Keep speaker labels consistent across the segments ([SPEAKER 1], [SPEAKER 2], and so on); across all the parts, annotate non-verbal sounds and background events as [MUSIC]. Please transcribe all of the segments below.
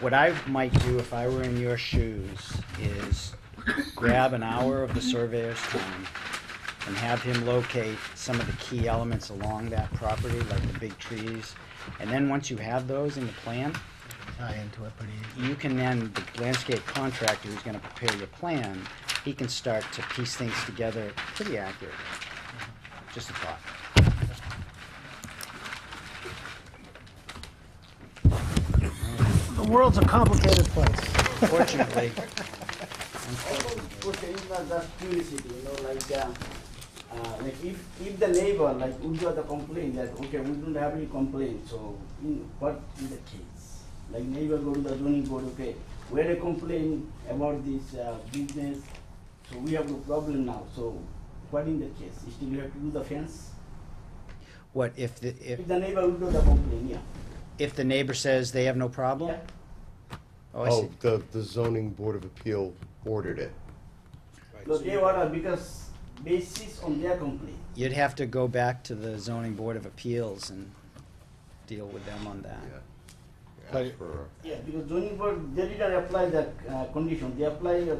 [SPEAKER 1] what I might do if I were in your shoes is grab an hour of the surveyor's time and have him locate some of the key elements along that property, like the big trees. And then once you have those in the plan,
[SPEAKER 2] tie into it pretty easy.
[SPEAKER 1] you can then, the landscape contractor who's gonna prepare your plan, he can start to piece things together pretty accurately. Just a thought.
[SPEAKER 2] The world's a complicated place.
[SPEAKER 1] Fortunately,
[SPEAKER 3] Okay, it's not just curiosity, you know, like, uh, uh, like if, if the neighbor, like, we got the complaint that, okay, we don't have any complaint, so, you know, what is the case? Like neighbor go to the zoning board, okay, we had a complaint about this, uh, business, so we have no problem now, so what in the case? Still you have to do the fence?
[SPEAKER 1] what if the, if,
[SPEAKER 3] If the neighbor will do the complaint, yeah,
[SPEAKER 1] if the neighbor says they have no problem?
[SPEAKER 3] yeah,
[SPEAKER 1] Oh, I see.
[SPEAKER 4] Oh, the, the zoning board of appeal ordered it.
[SPEAKER 3] so they order because basis on their complaint.
[SPEAKER 1] You'd have to go back to the zoning board of appeals and deal with them on that.
[SPEAKER 4] Ask for-
[SPEAKER 3] Yeah, because zoning board, they didn't apply that uh, condition, they apply, uh,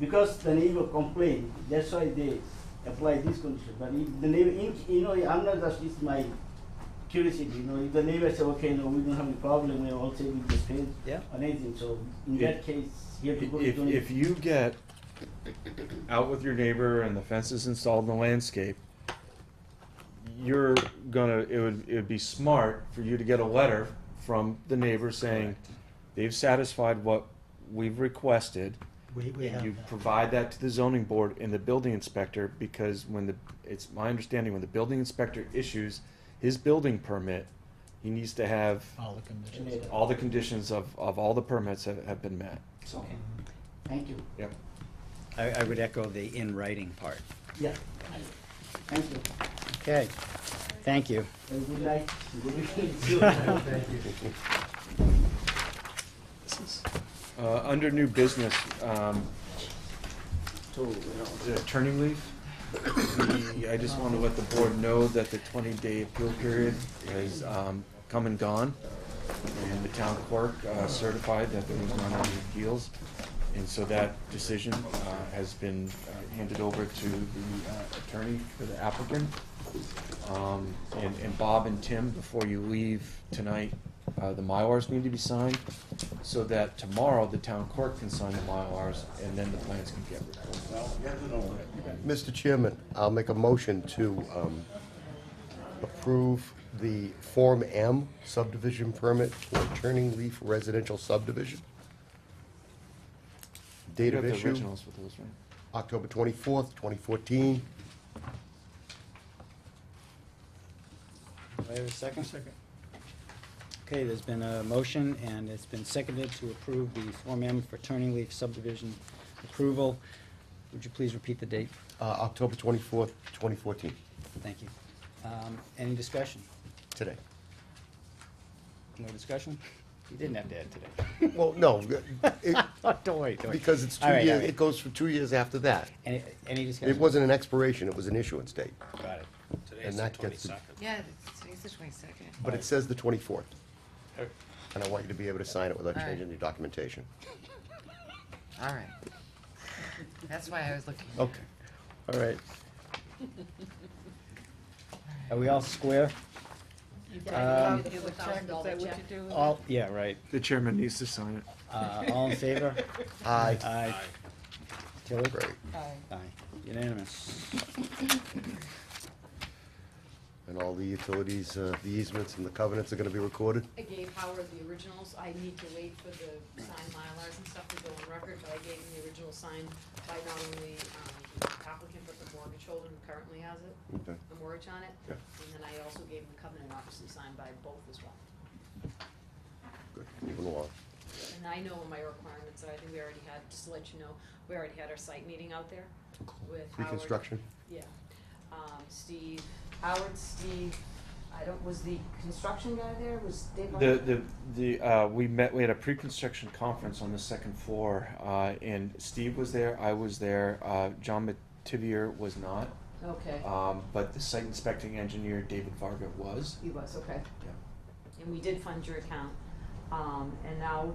[SPEAKER 3] because the neighbor complained, that's why they apply this condition, but if the neighbor, in- you know, I'm not just, it's my curiosity, you know, if the neighbor say, okay, no, we don't have any problem, we're all saving the fence.
[SPEAKER 1] Yeah.
[SPEAKER 3] Or anything, so in
[SPEAKER 5] Yeah.
[SPEAKER 3] that case, you have to go to
[SPEAKER 5] If,
[SPEAKER 3] zoning.
[SPEAKER 5] if you get out with your neighbor and the fence is installed in the landscape, you're gonna, it would, it would be smart for you to get a letter from the neighbor saying they've satisfied what we've requested.
[SPEAKER 2] We, we
[SPEAKER 5] And
[SPEAKER 2] have
[SPEAKER 5] you
[SPEAKER 2] that.
[SPEAKER 5] provide that to the zoning board and the building inspector, because when the, it's my understanding, when the building inspector issues his building permit, he needs to have
[SPEAKER 2] all the conditions.
[SPEAKER 5] all the conditions of, of all the permits have, have been met, so.
[SPEAKER 3] Okay. Thank you,
[SPEAKER 5] Yep.
[SPEAKER 1] I, I would echo the in writing part.
[SPEAKER 3] yeah, thank you,
[SPEAKER 1] Okay, thank you.
[SPEAKER 3] Have a good night, good evening.
[SPEAKER 5] Uh, under new business, um,
[SPEAKER 3] So, you know.
[SPEAKER 5] the turning leaf, the- I just want to let the board know that the twenty-day appeal period has, um, come and gone. And the town clerk uh, certified that there was none on the appeals. And so that decision, uh, has been uh, handed over to the uh, attorney for the applicant. Um, and, and Bob and Tim, before you leave tonight, uh, the Mylars need to be signed so that tomorrow the town clerk can sign the Mylars and then the plans can get recorded.
[SPEAKER 4] Mr. Chairman, I'll make a motion to um, approve the Form M subdivision permit for Turning Leaf Residential Subdivision. Date
[SPEAKER 5] You
[SPEAKER 4] of
[SPEAKER 5] have the
[SPEAKER 4] issue,
[SPEAKER 5] originals with those, right?
[SPEAKER 4] October 24th, 2014.
[SPEAKER 1] Do I have a second? Second. Okay, there's been a motion and it's been seconded to approve the Form M for Turning Leaf subdivision approval. Would you please repeat the date?
[SPEAKER 4] Uh, October 24th, 2014,
[SPEAKER 1] Thank you. Um, any discussion?
[SPEAKER 4] today.
[SPEAKER 1] No discussion? You didn't have to add [LAUGHS] today.
[SPEAKER 4] Well, no, it-
[SPEAKER 1] Oh, Don't worry, don't worry.
[SPEAKER 4] because it's
[SPEAKER 1] [LAUGHS] All
[SPEAKER 4] two
[SPEAKER 1] right, all
[SPEAKER 4] years,
[SPEAKER 1] right.
[SPEAKER 4] it goes for two years after that.
[SPEAKER 1] Any, any discussion?
[SPEAKER 4] It wasn't an expiration, it was an issuance date,
[SPEAKER 1] Got it.
[SPEAKER 4] and that gets, the-
[SPEAKER 6] Yeah, it's- today's the twenty-second.
[SPEAKER 4] but it says the 24th. And I want you to be able to sign it without
[SPEAKER 6] All right.
[SPEAKER 4] changing the documentation.
[SPEAKER 6] All right. That's why I was looking.
[SPEAKER 4] Okay, all right.
[SPEAKER 1] Are we all square?
[SPEAKER 6] Um, You looked checked, is that what you do? with
[SPEAKER 1] All, yeah, right.
[SPEAKER 5] The chairman needs to sign it.
[SPEAKER 1] Uh, all in favor?
[SPEAKER 4] Aye.
[SPEAKER 1] Aye. Tilly?
[SPEAKER 4] Great,
[SPEAKER 6] it? Aye.
[SPEAKER 1] Aye. Unanimous.
[SPEAKER 4] and all the utilities, uh, the easements and the covenants are gonna be recorded?
[SPEAKER 7] I gave Howard the originals, I need to wait for the signed Mylars and stuff to go on record, but I gave him the original signed by not only, um, the applicant, but the mortgage holder who currently has it,
[SPEAKER 4] Okay.
[SPEAKER 7] the mortgage on it.
[SPEAKER 4] Yeah.
[SPEAKER 7] And then I also gave him the covenant, obviously signed by both as well.
[SPEAKER 4] Good, moving along.
[SPEAKER 7] And I know what my requirements are, I think we already had, just to let you know, we already had our site meeting out there with Howard.
[SPEAKER 4] Pre-construction,
[SPEAKER 7] Yeah, um, Steve, Howard, Steve, I don't, was the construction guy there, was Dave? on
[SPEAKER 5] The,
[SPEAKER 7] it?
[SPEAKER 5] the, the, uh, we met, we had a pre-construction conference on the second floor, uh, and Steve was there, I was there, uh, John Mativier was not.
[SPEAKER 7] Okay,
[SPEAKER 5] Um, but the site inspecting engineer, David Varga, was.
[SPEAKER 7] he was, okay.
[SPEAKER 5] Yeah.
[SPEAKER 7] and we did fund your account. Um, and now